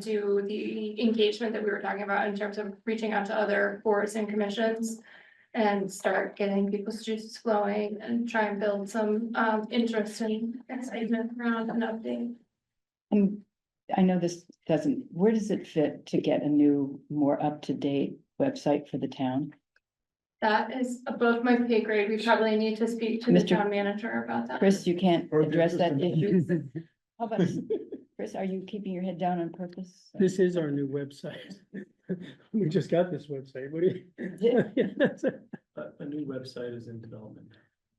do the engagement that we were talking about in terms of reaching out to other boards and commissions. And start getting people's juices flowing and try and build some um interest and excitement around an update. And I know this doesn't, where does it fit to get a new, more up-to-date website for the town? That is above my pay grade. We probably need to speak to the Mr. town manager about that. Chris, you can't Or address that just- issue. How about, Chris, are you keeping your head down on purpose? This is our new website. We just got this website, what do It you? A, a new website is in development,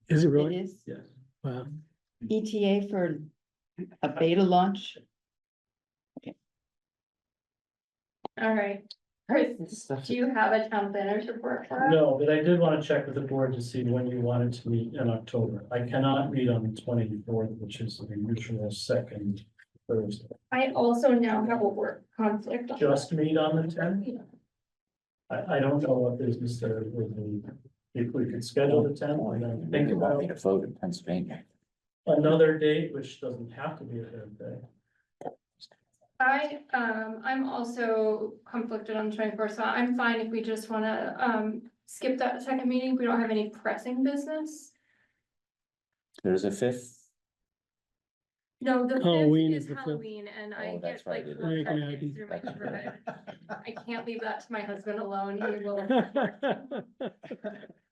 Is it really? is yes. Wow. ETA for a beta launch? All right. Chris, do you have a town planner's report for us? No, but I did wanna check with the board to see when you wanted to meet in October. I cannot meet on the twenty-fourth, which is the usual second Thursday. I also now have a work conflict. on Just meet on the tenth? that. I, I don't know what business there would be. If we could schedule the tenth, and then think about to vote in Pennsylvania. another date, which doesn't have to be a Thursday. I, um, I'm also conflicted on twenty-four, so I'm fine if we just wanna, um, skip that second meeting. We don't have any pressing business. There's a fifth, No, the Halloween fifth is is the fifth. Halloween and I Oh, get that's like. right, it is. four Right, yeah, I cupcakes do. through my neighborhood. I can't leave that to my husband alone. He will.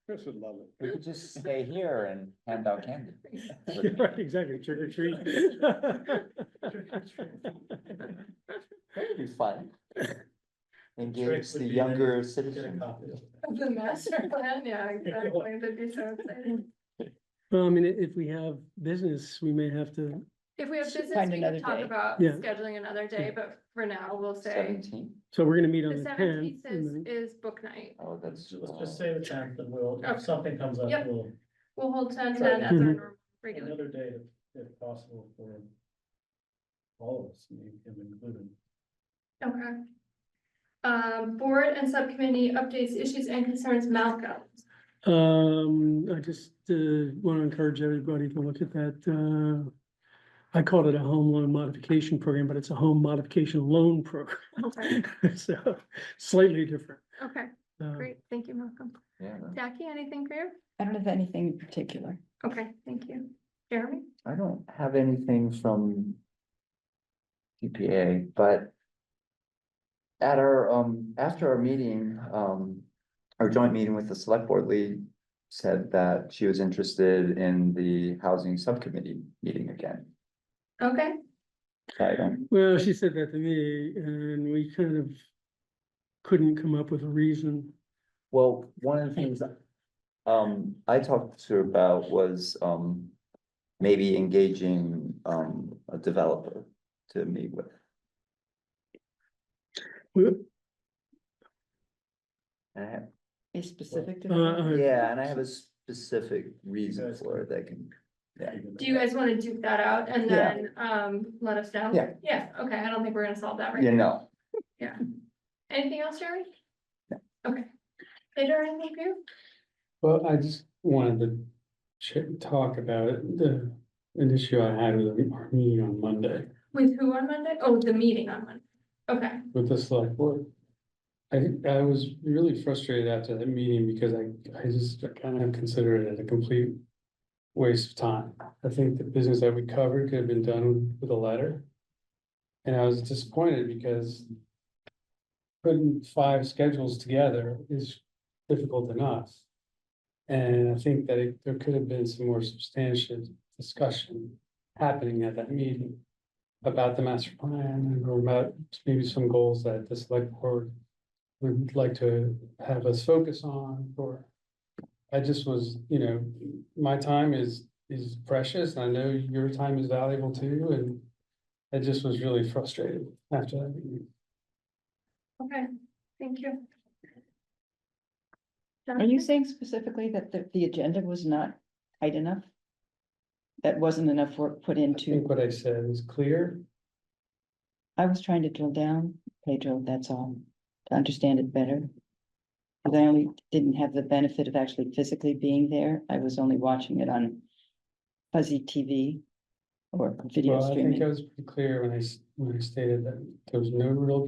Chris would love we could just stay here and hand out candy. Right, exactly, trick or treat. That'd be fun. Trick Engage would the be younger Get a citizen. copy of it. The master plan, yeah, exactly. That'd be so exciting. Well, I mean, i- if we have business, we may have to, If we have business, Find we another can talk day. about Yeah. scheduling another day, but for now, we'll say. Seventeen, so we're gonna meet on The the seventeenth tenth. is, is book night. oh, that's. So Let's just uh, say the tenth, and we'll, Okay. if something comes up, Yep. we'll, We'll hold ten Sure. ten as our Mhm. normal regular. another day if, if possible for all of us, me him included. Okay. Um, board and subcommittee updates, issues and concerns, Malcolm. Um, I just, uh, wanna encourage everybody to look at that, uh, I called it a home loan modification program, but it's a home modification loan program. Okay, So slightly different. okay, Um, great. Thank you, Malcolm. Yeah, no, Jackie, anything for you? I don't have anything in particular. Okay, thank you. Jeremy? I don't have anything from EPA, but at our, um, after our meeting, um, our joint meeting with the select board lead said that she was interested in the housing subcommittee meeting again. Okay, So I don't, Well, she said that to me and we kind of couldn't come up with a reason. Well, one of the things um I talked to her about was um maybe engaging um a developer to meet with. We- And I have- A specific. Uh, development? uh, Yeah, and I have a specific reason Yes. for it that can, yeah, do you guys want to duke that out and Yeah. then, um, let us know? Yeah. Yeah, okay, I don't think we're gonna solve that right you know, Anything else, Jerry? Okay. Peter, anything for you? Well, I just wanted to ch- talk about the, an issue I had with our meeting on Monday With who on Monday? Oh, the meeting on Monday. Okay, with the select board. I think I was really frustrated after that meeting because I, I just kind of considered it a complete waste of time. I think the business that we covered could have been done with a letter. And I was disappointed because putting five schedules together is difficult enough. And I think that it- there could have been some more substantive discussion happening at that meeting about the master plan and about maybe some goals that the select board would like to have us focus on or I just was, you know, my time is is precious and I know your time is valuable too and I just was really frustrated after that meeting. okay, thank you. Are you saying specifically that the, the agenda was not tight enough? That wasn't enough work put I into, think what I said is clear. I was trying to drill down, Pedro, that's all, to understand it better. Cause I only didn't have the benefit of actually physically being there, I was only watching it on fuzzy TV. or video Well, I streaming. think I was pretty clear when I, s- when I stated that there was no real